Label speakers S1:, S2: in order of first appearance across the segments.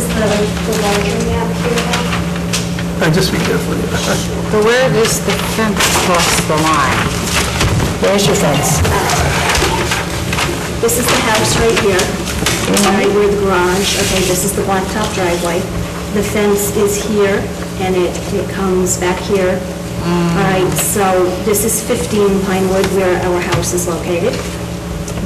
S1: the larger map here.
S2: I just be careful.
S3: But where does the fence cross the line? Where's your fence?
S1: This is the house right here, right where the garage, okay, this is the blacktop driveway. The fence is here, and it, it comes back here. All right, so this is 15 Pinewood where our house is located.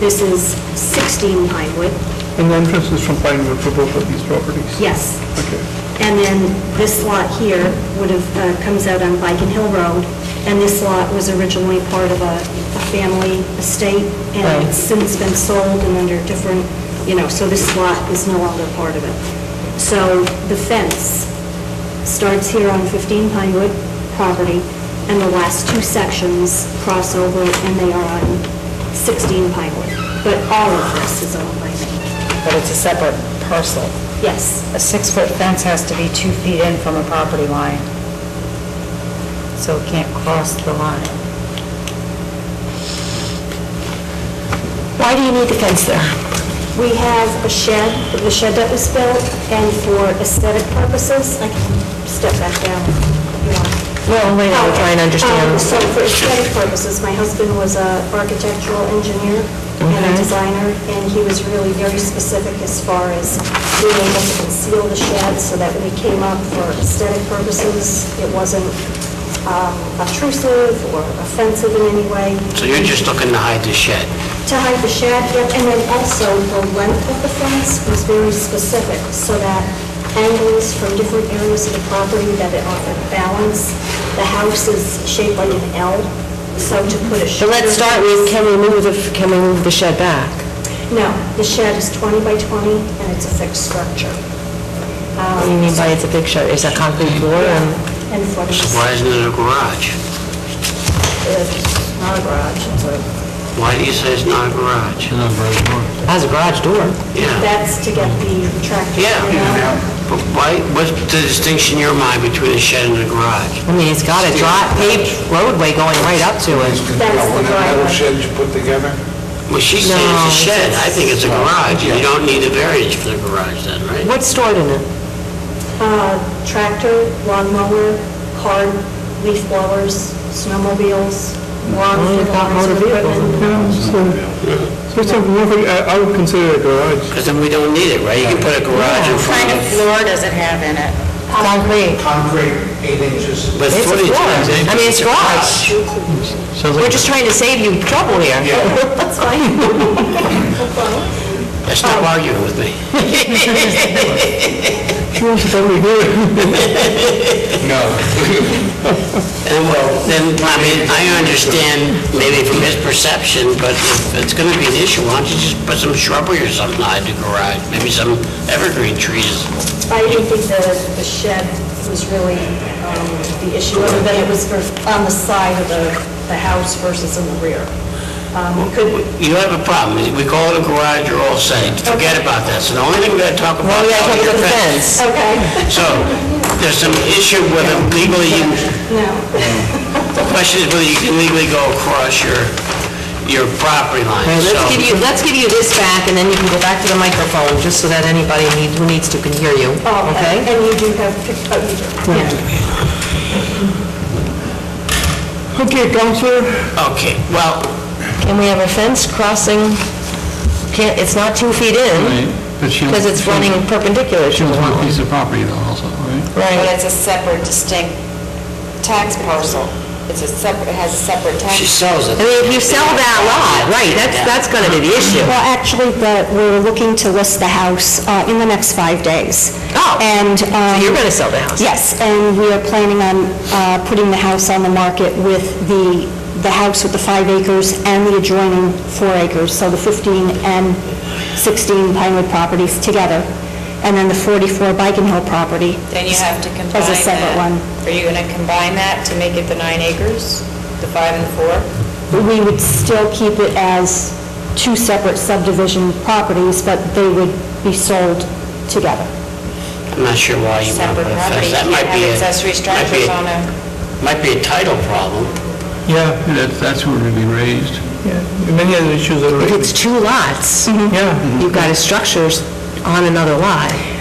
S1: This is 16 Pinewood,
S2: And the entrance is from Pinewood for both of these properties?
S1: yes.
S2: Okay.
S1: And then this lot here would have, uh, comes out on Viking Hill Road, and this lot was originally part of a a family estate, and it's since been sold and under different, you know, so this lot is no longer part of it. So the fence starts here on 15 Pinewood property, and the last two sections cross over, and they are on 16 Pinewood. But all of this is owned by me.
S3: But it's a separate parcel.
S1: Yes.
S3: A six-foot fence has to be two feet in from a property line, so it can't cross the line. Why do you need the fence there?
S1: We have a shed, the shed that was built, and for aesthetic purposes, I can step back down if you want.
S3: Well, wait, I'm trying to
S1: Um,
S3: understand.
S1: So for aesthetic purposes, my husband was an architectural engineer and a
S3: Okay.
S1: designer, and he was really very specific as far as being able to conceal the shed so that when we came up for aesthetic purposes, it wasn't um, obtrusive or offensive in any way.
S4: So you're just looking to hide the shed?
S1: to hide the shed, yep, and then also the length of the fence was very specific, so that angles from different areas of the property that it offered balance. The house is shaped like an L, so to put a
S5: But
S1: shelter...
S5: let's start with, can we move the, can we move the shed back?
S1: No, the shed is 20 by 20, and it's a fixed structure.
S5: What do you mean by it's a big shed? Is that concrete floor and...
S1: Um, And for the...
S4: Why isn't it a garage?
S1: It's not a garage, it's a...
S4: Why do you say it's not a garage?
S5: It Has a garage door.
S4: Yeah,
S1: That's to get the tractor...
S4: yeah.
S1: in and out.
S4: But why, what's the distinction in your mind between a shed and a garage?
S5: I mean, it's got a dry paved roadway going right up to it.
S1: That's the
S6: One of the metal
S1: driveway.
S6: sheds you put together?
S4: Well, she's saying
S5: No,
S4: it's a
S5: it's-
S4: shed, I think it's a garage, you don't need a variance for the garage then, right?
S5: What's stored in it?
S1: Uh, Tractor, lawnmower, car, leaf blowers, snowmobiles, lawn
S5: Oh, you've got
S1: fertilizer
S5: motor vehicles.
S1: equipment.
S2: Yeah, so, so it's a, moving- I I would consider it a garage.
S4: Because then we don't need it, right? You can put a garage in front of,
S3: floor does it have in it?
S5: Concrete.
S6: Concrete, eight inches.
S4: with
S5: It's a
S4: footage.
S5: floor.
S4: and everything.
S5: I mean, it's garage. We're just trying to save you trouble here.
S1: That's fine.
S4: That's not
S5: Oh.
S4: arguing with me.
S2: She wants to tell me here.
S4: And well, then, I mean, I understand maybe from his perception, but if it's gonna be an issue, why don't you just put some shrubbery or something behind the garage? Maybe some evergreen trees.
S1: I didn't think the, the shed was really um, the issue, other than it was for, on the side of the, the house versus in the rear. Um, you could,
S4: You have a problem. We call it a garage, you're all saying, forget about that. So the only thing we gotta talk about
S5: Well, we
S4: is
S5: gotta talk
S4: your
S5: about the
S4: fence.
S5: fence.
S1: okay,
S4: So, there's some issue whether legally, you-
S1: no,
S4: the question is whether you can legally go across your, your property line.
S5: All right,
S4: So,
S5: Let's give you, let's give you this back, and then you can go back to the microphone, just so that anybody need- who needs to can hear you,
S1: oh, and
S5: okay?
S1: and you do have, pic- oh, you do, yeah.
S2: Okay, counselor,
S4: Okay, well,
S5: And we have a fence crossing, can't, it's not two feet in,
S7: But she
S5: because it's running perpendicular to
S7: She
S5: the
S7: owns one
S5: line.
S7: piece of property though also, right?
S3: But it's a separate distinct tax parcel. It's a separate, it has a separate tax.
S4: she sells
S5: I
S4: it.
S5: mean, if you sell that lot, right, that's, that's gonna be the issue.
S1: Well, actually, the, we're looking to list the house uh, in the next five days.
S5: Oh.
S1: And...
S5: So
S1: um,
S5: You're gonna sell the house.
S1: Yes, and we are planning on uh, putting the house on the market with the, the house with the five acres and the adjoining four acres, so the 15 and 16 Pinewood properties together, and then the 44 Biken Hill property.
S8: Then you have to combine that.
S1: As a separate one.
S8: Are you going to combine that to make it the nine acres, the five and the four?
S1: We would still keep it as two separate subdivision properties, but they would be sold together.
S4: I'm not sure why you
S8: Separate
S4: want to put a
S8: property,
S4: fence.
S8: you
S4: That
S8: can't
S4: might be
S8: have
S4: a-
S8: accessory
S4: might
S8: structures
S4: be a-
S8: on a...
S4: Might be a title problem.
S7: Yeah. That, that's where it'd be raised.
S2: yeah, many other issues are
S5: If
S2: raised.
S5: it's two lots,
S2: Yeah.
S5: you've got a structures on another lot.